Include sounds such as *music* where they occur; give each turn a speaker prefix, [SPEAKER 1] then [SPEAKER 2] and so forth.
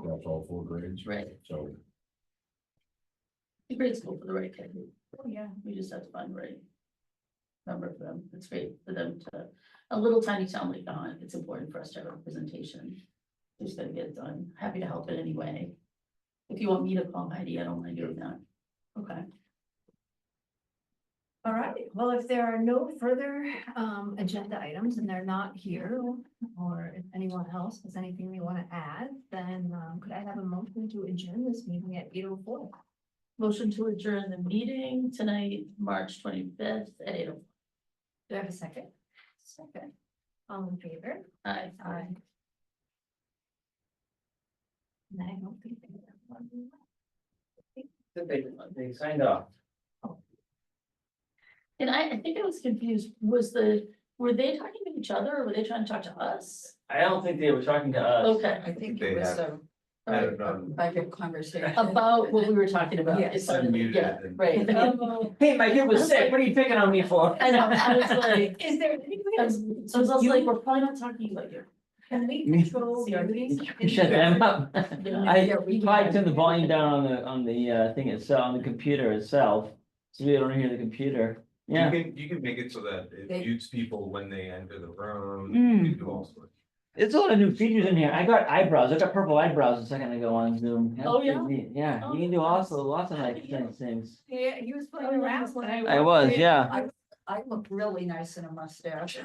[SPEAKER 1] all four grades,
[SPEAKER 2] right?
[SPEAKER 1] so.
[SPEAKER 2] The grade school for the right kid,
[SPEAKER 3] Oh, yeah.
[SPEAKER 2] we just have to find the right. Number for them, it's great for them to, a little tiny town like Belmont, it's important for us to have a representation. Just gotta get it done, happy to help in any way. If you want me to call Heidi, I don't mind doing that. Okay,
[SPEAKER 3] All right, well, if there are no further um agenda items and they're not here, or if anyone else has anything they want to add, then um could I have a motion to adjourn this meeting at eight oh four?
[SPEAKER 2] motion to adjourn the meeting tonight, March twenty fifth at eight oh
[SPEAKER 3] Do I have a second? Second. All in favor?
[SPEAKER 2] five.
[SPEAKER 3] Aye. And I don't think. they have one.
[SPEAKER 4] They, they signed off.
[SPEAKER 2] And I, I think I was confused, was the, were they talking to each other or were they trying to talk to us?
[SPEAKER 4] I don't think they were talking to us.
[SPEAKER 2] Okay,
[SPEAKER 5] I think
[SPEAKER 1] They
[SPEAKER 5] it was
[SPEAKER 1] have-
[SPEAKER 5] a
[SPEAKER 1] I don't know.
[SPEAKER 5] private conversation.
[SPEAKER 2] about what we were talking about.
[SPEAKER 5] Yes.
[SPEAKER 2] It's sort of-
[SPEAKER 1] Unmuted
[SPEAKER 2] Yeah,
[SPEAKER 1] and-
[SPEAKER 2] *laughs* right.
[SPEAKER 4] Hey, my kid was sick, what are you picking on me
[SPEAKER 2] *laughs*
[SPEAKER 4] for?
[SPEAKER 2] Oh, I know, I was like,
[SPEAKER 4] *laughs*
[SPEAKER 3] Is there any way
[SPEAKER 2] I
[SPEAKER 3] to
[SPEAKER 2] was, I was also like, we're probably not talking about you.
[SPEAKER 5] Um,
[SPEAKER 3] Can we
[SPEAKER 5] *laughs*
[SPEAKER 4] Me-
[SPEAKER 3] control
[SPEAKER 2] See, I
[SPEAKER 3] meetings?
[SPEAKER 4] Shut them *laughs* up. I
[SPEAKER 5] Yeah, we
[SPEAKER 4] tried to turn
[SPEAKER 5] can.
[SPEAKER 4] the volume down on the, on the, uh, thing itself, on the computer itself, so we don't hear the computer,
[SPEAKER 1] You
[SPEAKER 4] yeah.
[SPEAKER 1] can, you can make it so that it
[SPEAKER 5] They-
[SPEAKER 1] mutes people when they enter the room,
[SPEAKER 4] Mm.
[SPEAKER 1] you can do all sorts.
[SPEAKER 4] There's a lot of new features in here, I got eyebrows, I got purple eyebrows a second ago on Zoom. That's
[SPEAKER 2] Oh,
[SPEAKER 4] pretty
[SPEAKER 2] yeah?
[SPEAKER 4] neat. Yeah,
[SPEAKER 2] Oh,
[SPEAKER 4] you can do also lots of
[SPEAKER 2] how
[SPEAKER 4] like
[SPEAKER 2] did you-
[SPEAKER 4] things.
[SPEAKER 3] Yeah, he was
[SPEAKER 2] Oh,
[SPEAKER 3] playing
[SPEAKER 2] yeah,
[SPEAKER 3] around
[SPEAKER 2] that's
[SPEAKER 3] when
[SPEAKER 2] right.
[SPEAKER 3] I.
[SPEAKER 4] I was, yeah. *laughs*
[SPEAKER 5] I look really nice in a mustache.